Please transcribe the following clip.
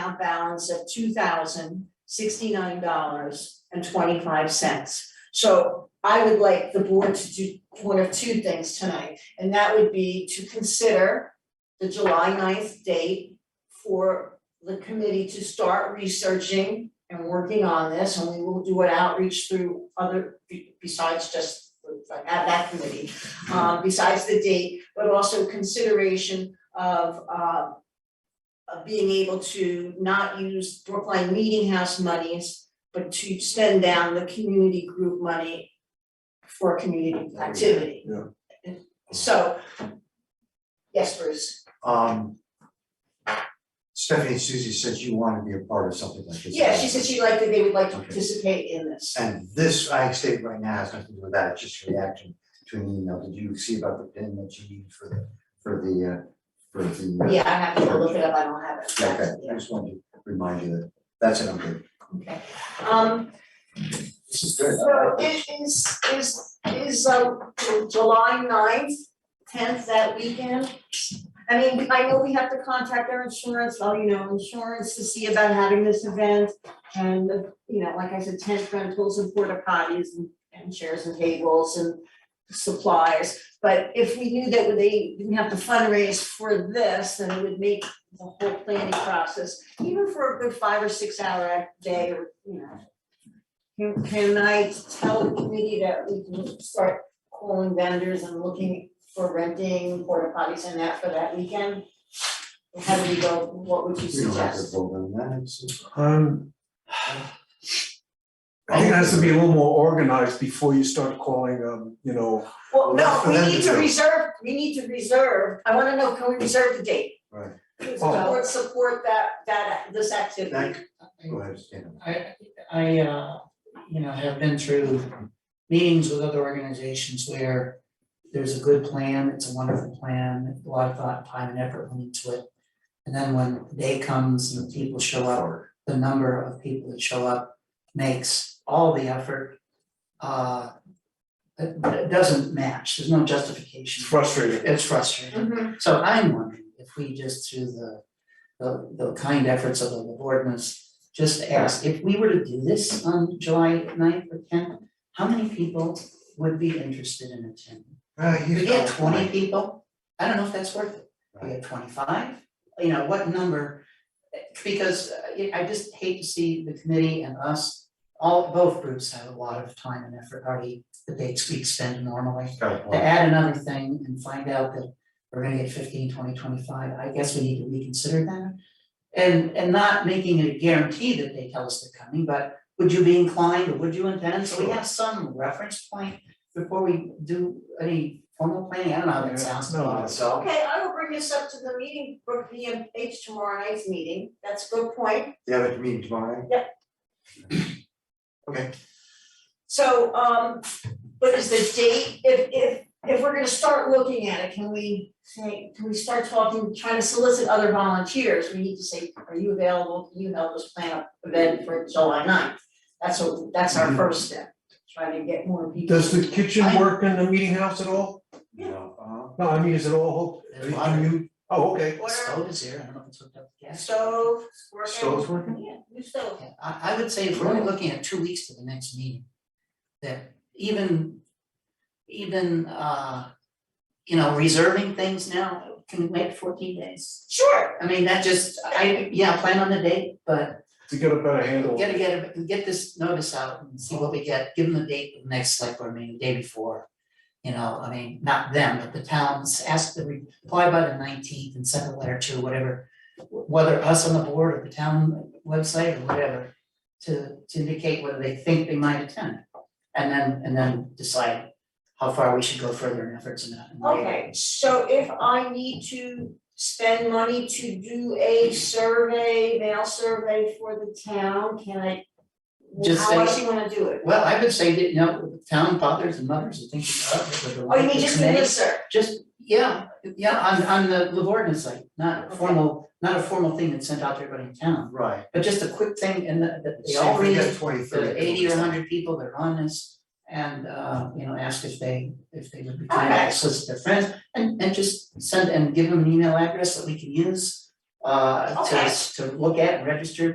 account balance of two thousand sixty-nine dollars and twenty-five cents. So I would like the board to do one of two things tonight, and that would be to consider the July 9th date for the committee to start researching and working on this, and we will do an outreach through other, be- besides just at that committee, um, besides the date, but also consideration of, uh, of being able to not use Brookline Meeting House monies, but to spend down the community group money for community activity. So, yes, Bruce, Um. Stephanie Susie says you want to be a part of something like this. yeah, she said she liked that they would like to Okay. participate in this. And this, I state right now, has nothing to do with that, it's just a reaction to an email. Did you see about the pin that you need for the, for the, uh, for the. uh, Yeah, I have to look it up, I don't have it. Okay, Yeah. I just wanted to remind you that, that's it, I'm good. Okay, um, This is good. so is, is, is, is, um, July ninth, tenth, that weekend? I mean, I know we have to contact our insurance, well, you know, insurance to see about having this event. And, you know, like I said, tent rentals and porta potties and, and chairs and tables and supplies. But if we knew that they didn't have to fundraise for this, then it would make the whole planning process, even for a good five or six hour a day or, you know. Can, can I tell the committee that we can start calling vendors and looking for renting porta potties and that for that weekend? How do we go, what would you We don't have to suggest? vote on that, it's. Um. I think it has to be a little more organized before you start calling, um, you know, Well, Well, that's no, for we them need to to do. reserve, we need to reserve, I wanna know, can we reserve the date? Right. Does the Oh. board support that, that, this activity? Thank- Go ahead, Stan. I, I, uh, you know, have been through meetings with other organizations where there's a good plan, it's a wonderful plan, a lot of thought, time and effort went into it. And then when the day comes and people show up, the number of people that show up makes all the effort. Uh, it, it doesn't match, there's no it's justification, frustrating. it's frustrating. Mhm. So I'm wondering if we just through the, the, the kind efforts of the boardmans, just ask, if we were to do this on July 9th or tenth, how many people would be interested in attending? Uh, If you we get twenty people, I don't know if that's worth it. If We get twenty-five, you know, what number? Because uh, I I just hate to see the committee and us, all, both groups have a lot of time and effort already, the dates we spend normally Got to one. add another thing and find out that we're gonna get 15, 20, 25. I guess we need to reconsider that. And, and not making it a guarantee that they tell us they're coming, but would you be inclined or would you intend? So we have some reference point before we do any formal planning, I don't know how Yeah, that sounds. no, it's- So, Okay, I will bring this up to the meeting, for PMH tomorrow night's meeting, that's a good point. you have a meeting tomorrow? So, um, but is the date, if, if, if we're gonna start looking at it, can we say, can we start talking, trying to solicit other volunteers? We need to say, are you available, can you help us plan an event for July 9th? That's what, that's our Mhm. first step, try to get more people. Does the kitchen work in the meeting house at all? No. No, I mean, is it all, There's are you, oh, okay. The Order, Stove is here, I don't know if it's hooked up to gas. stove, Uh, working. Stove's working? Yeah, new stove. Yeah, I, I would say if we're only looking at two weeks to the next meeting, that even, even, uh, you know, reserving things now can wait fourteen days. Sure, I mean, that just, I, yeah, plan on the date, but To get a better handle. gotta get, a- get this notice out and see what we get, give them the date, of the next select board meeting, the day before. You know, I mean, not them, but the towns, ask the, reply by the nineteenth and send a letter to whatever, whether us on the board or the town website or whatever, to, to indicate whether they think they might attend. And then, and then decide how far we should go further in efforts and that. and later. Okay, so if I need to spend money to do a survey, mail survey for the town, can I? Just How else say- you wanna do it? Well, I would say that, you know, town fathers and mothers are thinking of it, but the. Oh, you mean just do committee- this, sir? Just, yeah, yeah, on on the Livorno site, not a formal, not a formal thing that's sent out to everybody in town, uh, Right. but just a quick thing and that that they all read, it, the eighty or hundred people that are on this. And uh, you know, ask if they, if they would be kind Okay. to solicit their friends and and just send and give them an email address that we can use. uh, to Okay. to look at and register